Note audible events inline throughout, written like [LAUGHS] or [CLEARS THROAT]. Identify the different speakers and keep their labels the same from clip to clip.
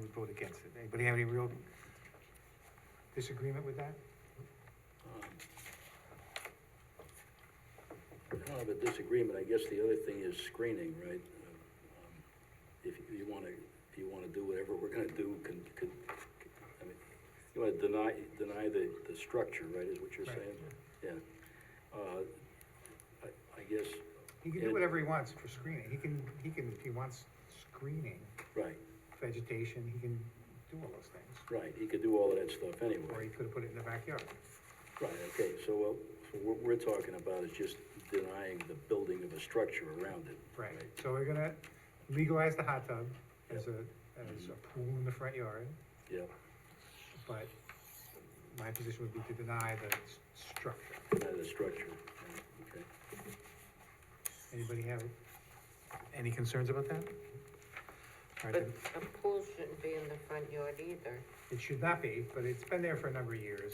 Speaker 1: would vote against it. Anybody have any real disagreement with that?
Speaker 2: Um, Kind of a disagreement, I guess the other thing is screening, right? Um, If you want to, if you want to do whatever we're going to do, can, can, I mean, you want to deny, deny the, the structure, right, is what you're
Speaker 1: Right.
Speaker 2: saying? Yeah. Uh, I- I guess,
Speaker 1: He can do whatever he wants for screening. He can, he can, if he wants screening,
Speaker 2: right,
Speaker 1: vegetation, he can do all those things.
Speaker 2: right, he could do all of that stuff
Speaker 1: Or he
Speaker 2: anyway.
Speaker 1: could have put it in the backyard.
Speaker 2: Right, okay, so what, so what we're talking about is just denying the building of a structure around it.
Speaker 1: Right, so we're gonna legalize the hot tub as a, as a pool in the front yard,
Speaker 2: Yeah,
Speaker 1: but my position would be to deny the s- structure.
Speaker 2: deny the structure, right, okay.
Speaker 1: Anybody have any concerns about that? All right,
Speaker 3: But
Speaker 1: then,
Speaker 3: a pool shouldn't be in the front yard either.
Speaker 1: it should not be, but it's been there for a number of years,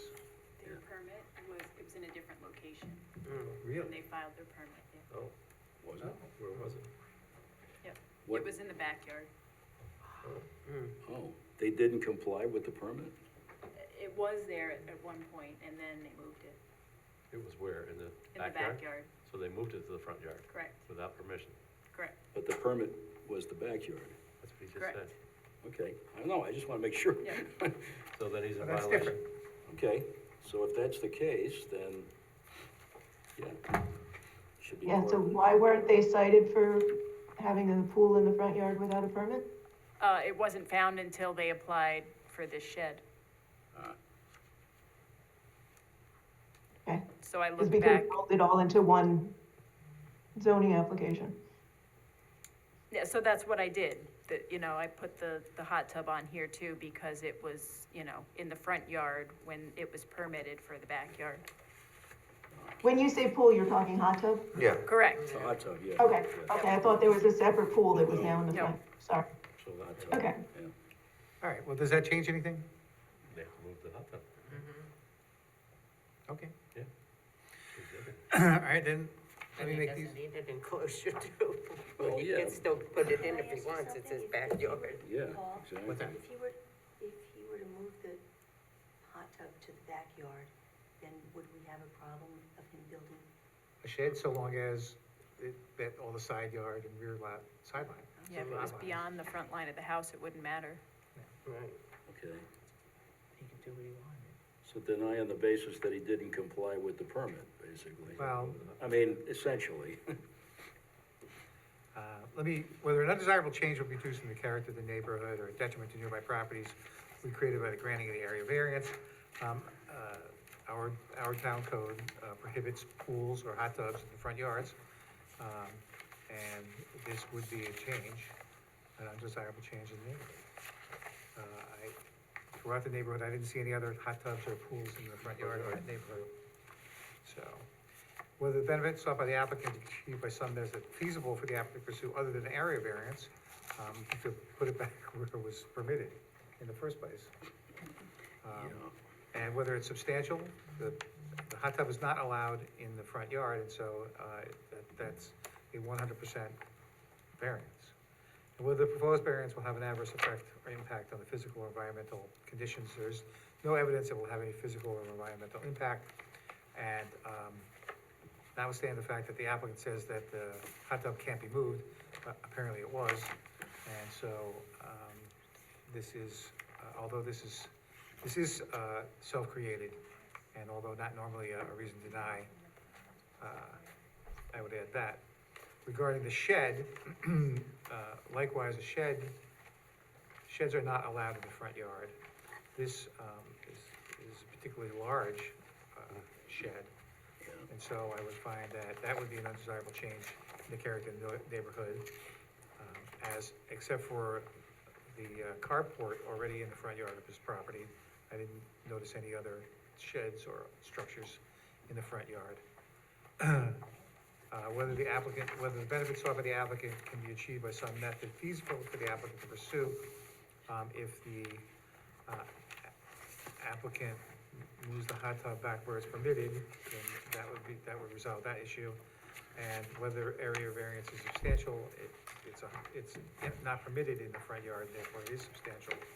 Speaker 4: Their permit was, it was in a different location when they
Speaker 1: Mm, really.
Speaker 4: filed their permit, yeah.
Speaker 5: Oh,
Speaker 2: Was
Speaker 1: Oh,
Speaker 2: it?
Speaker 5: where was it?
Speaker 2: What-
Speaker 4: It was in the backyard.
Speaker 2: Oh, they didn't comply with the permit?
Speaker 4: It was there at at one point and then they moved it.
Speaker 5: It was where, in the
Speaker 4: In the
Speaker 5: backyard?
Speaker 4: backyard,
Speaker 5: So they moved it to the front yard
Speaker 4: correct,
Speaker 5: without permission.
Speaker 4: correct.
Speaker 2: But the permit was the backyard.
Speaker 5: That's what he just
Speaker 4: Correct.
Speaker 5: said.
Speaker 2: Okay, I know, I just want to make sure.
Speaker 4: Yeah.
Speaker 5: So then he's in
Speaker 1: But that's
Speaker 5: violation.
Speaker 1: different.
Speaker 2: [LAUGHS] Okay, so if that's the case, then, yeah, should be.
Speaker 6: Yeah, so
Speaker 2: more-
Speaker 6: why weren't they cited for having a pool in the front yard without a permit?
Speaker 4: Uh, it wasn't found until they applied for this shed.
Speaker 2: Ah,
Speaker 6: Okay,
Speaker 4: So I
Speaker 6: it's
Speaker 4: looked
Speaker 6: because
Speaker 4: back,
Speaker 6: it rolled it all into one zoning application.
Speaker 4: yeah, so that's what I did, that, you know, I put the, the hot tub on here too because it was, you know, in the front yard when it was permitted for the backyard.
Speaker 6: When you say pool, you're talking hot tub?
Speaker 1: Yeah.
Speaker 4: Correct,
Speaker 2: So hot tub, yeah.
Speaker 6: Okay,
Speaker 2: yeah,
Speaker 6: okay, I thought there was a separate pool that was now in the
Speaker 4: No.
Speaker 6: front, sorry.
Speaker 2: So hot tub.
Speaker 6: Okay.
Speaker 2: yeah.
Speaker 1: All right, well, does that change anything?
Speaker 5: They have to move the hot tub.
Speaker 1: Okay,
Speaker 5: Yeah. Exhibit.
Speaker 1: [CLEARS THROAT] all right, then, let
Speaker 3: And
Speaker 1: me
Speaker 3: he
Speaker 1: make these,
Speaker 3: doesn't need an enclosure [LAUGHS] too.
Speaker 2: Well,
Speaker 3: But he
Speaker 2: yeah.
Speaker 3: can still put it in if
Speaker 7: Can I
Speaker 3: he
Speaker 7: ask you
Speaker 3: wants, it's his
Speaker 7: something? If he were-
Speaker 3: backyard.
Speaker 2: Yeah,
Speaker 7: Paul?
Speaker 2: exactly.
Speaker 1: what's that?
Speaker 7: If he were, if he were to move the hot tub to the backyard, then would we have a problem of him building?
Speaker 1: A shed so long as it, that all the side yard and rear lot, sideline.
Speaker 4: yeah, if it was beyond the front line of the house, it wouldn't matter.
Speaker 3: Right,
Speaker 2: Okay,
Speaker 3: he can do what he wanted.
Speaker 2: so deny on the basis that he didn't comply with the permit, basically.
Speaker 1: Well,
Speaker 2: I mean, essentially.
Speaker 1: uh, let me, whether an undesirable change will be reducing the character of the neighborhood or a detriment to nearby properties we created by the granting of the area variance. Um, uh, our, our town code uh, prohibits pools or hot tubs in front yards. Um, and this would be a change, an undesirable change in the neighborhood. Uh, I, throughout the neighborhood, I didn't see any other hot tubs or pools in the front yard or that neighborhood. So, whether the benefits sought by the applicant achieved by some measure feasible for the applicant to pursue other than area variance, um, to put it [LAUGHS] back where it was permitted in the first place. Um, And whether it's substantial, the, the hot tub is not allowed in the front yard, and so, uh, that, that's a one hundred percent variance. And whether the proposed variance will have an adverse effect or impact on the physical or environmental conditions, there's no evidence it will have any physical or environmental impact. And, um, notwithstanding the fact that the applicant says that the hot tub can't be moved, uh, apparently it was. And so, um, this is, uh, although this is, this is, uh, self-created, and although not normally a a reason to deny, uh, I would add that. Regarding the shed, [CLEARS THROAT] uh, likewise, a shed, sheds are not allowed in the front yard. This, um, is, is a particularly large, uh, shed. And so I would find that that would be an undesirable change in the character of the neighborhood. um, As, except for the uh, carport already in the front yard of his property, I didn't notice any other sheds or structures in the front yard. Uh, whether the applicant, whether the benefits sought by the applicant can be achieved by some method feasible for the applicant to pursue, um, if the, uh, applicant moves the hot tub back where it's permitted, then that would be, that would resolve that issue. And whether area variance is substantial, it, it's a, it's not permitted in the front yard, therefore it is substantial.